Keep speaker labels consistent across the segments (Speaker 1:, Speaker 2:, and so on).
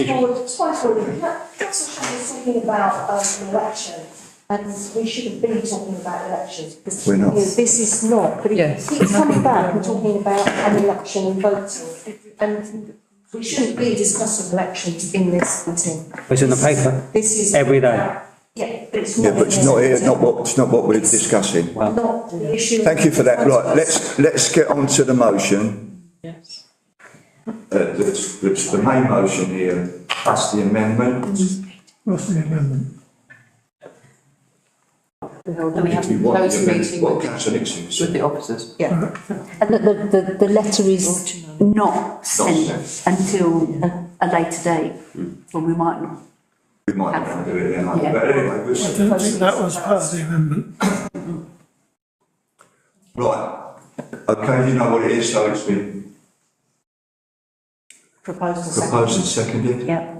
Speaker 1: Twice forward, Councillor Shane is talking about um, an election, and we shouldn't be talking about elections. because,
Speaker 2: We're not.
Speaker 1: you know, This is not, but it
Speaker 3: Yes.
Speaker 1: keeps coming back, we're talking about an election and voting, and we shouldn't be discussing elections in this meeting.
Speaker 4: It's in the paper.
Speaker 1: This is.
Speaker 4: Every day.
Speaker 1: Yeah, but it's not.
Speaker 2: Yeah, but it's not, it's not what, it's not what we're discussing.
Speaker 1: Not the issue.
Speaker 2: Thank you for that. Right, let's, let's get on to the motion.
Speaker 3: Yes.
Speaker 2: Uh, the, the, the main motion here, plus the amendment.
Speaker 3: And
Speaker 5: And we have
Speaker 2: If you want
Speaker 5: closed
Speaker 2: the amendment-
Speaker 5: meeting
Speaker 2: What
Speaker 5: with
Speaker 2: councillor Nixon
Speaker 5: with
Speaker 2: said.
Speaker 5: the officers.
Speaker 1: Yeah,
Speaker 6: And that the, the, the letter is not sent until a, a later date, when we might not.
Speaker 2: We might not want to do it then,
Speaker 6: Yeah.
Speaker 2: but anyway,
Speaker 7: I
Speaker 2: we're,
Speaker 7: don't think that was part of the amendment.
Speaker 2: right. Okay, you know what it is, so it's been
Speaker 1: proposed and seconded.
Speaker 2: proposed and seconded.
Speaker 6: Yeah.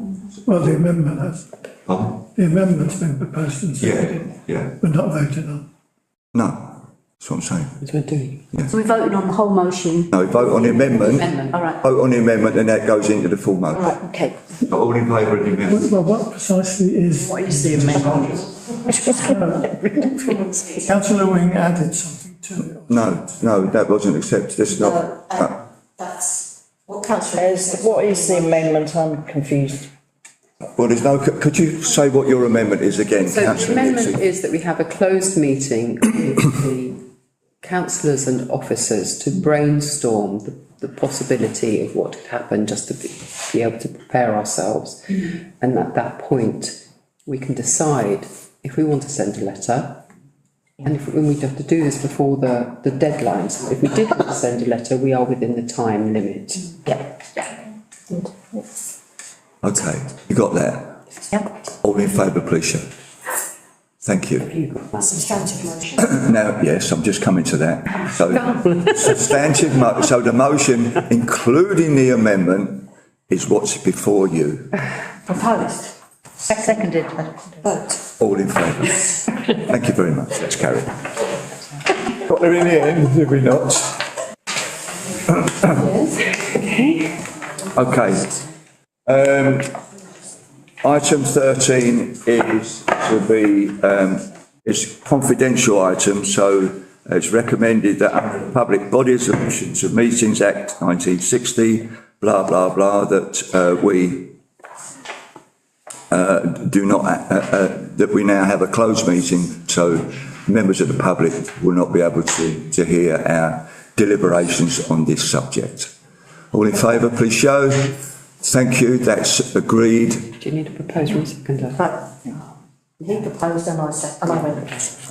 Speaker 7: Well, the amendment has,
Speaker 2: Pardon?
Speaker 7: the amendment's been proposed and
Speaker 2: Yeah,
Speaker 7: seconded,
Speaker 2: yeah.
Speaker 7: but not voted on.
Speaker 2: No, that's what I'm saying.
Speaker 6: So we're voting on the whole motion,
Speaker 2: No, vote on the amendment,
Speaker 6: all right,
Speaker 2: vote on the amendment and that goes into the full
Speaker 6: all
Speaker 2: motion.
Speaker 6: right, okay.
Speaker 2: All in favour of the amendment?
Speaker 7: Well, what precisely is? What is the amendment? Councillor Wing added something to it.
Speaker 2: No, no, that wasn't accepted, it's
Speaker 1: No,
Speaker 2: not.
Speaker 1: uh, That's what councillor.
Speaker 3: As, what is the amendment? I'm confused.
Speaker 2: Well, there's no, could you say what your amendment is again,
Speaker 5: So the
Speaker 2: councillor
Speaker 5: amendment
Speaker 2: Nixon?
Speaker 5: is that we have a closed meeting with the councillors and officers to brainstorm the, the possibility of what could happen, just to be, be able to prepare ourselves.
Speaker 2: Mm-hmm.
Speaker 5: And at that point, we can decide if we want to send a letter. And if, and we'd have to do this before the, the deadlines. If we did want to send a letter, we are within the time limit.
Speaker 2: Mm-hmm. Okay, you got that? All in favour, please, show. Thank you.
Speaker 1: Substantive motion.
Speaker 2: Now, yes, I'm just coming to that. So substantive mo, so the motion, including the amendment, is what's before you.
Speaker 1: Proposed,
Speaker 6: Seconded.
Speaker 1: vote.
Speaker 2: All in favour? Thank you very much, let's carry on. Got there in the end, did we not? Okay. Um, item thirteen is to be, um, it's confidential item, so it's recommended that under the Public Bodies Emissions of Meetings Act nineteen sixty, blah, blah, blah, that, uh, we do not, uh, uh, that we now have a closed meeting, so members of the public will not be able to, to hear our deliberations on this subject. All in favour, please show. Thank you, that's agreed. Mm-hmm.
Speaker 5: Do you need a proposal, seconder?
Speaker 1: He proposed and I said, and I went.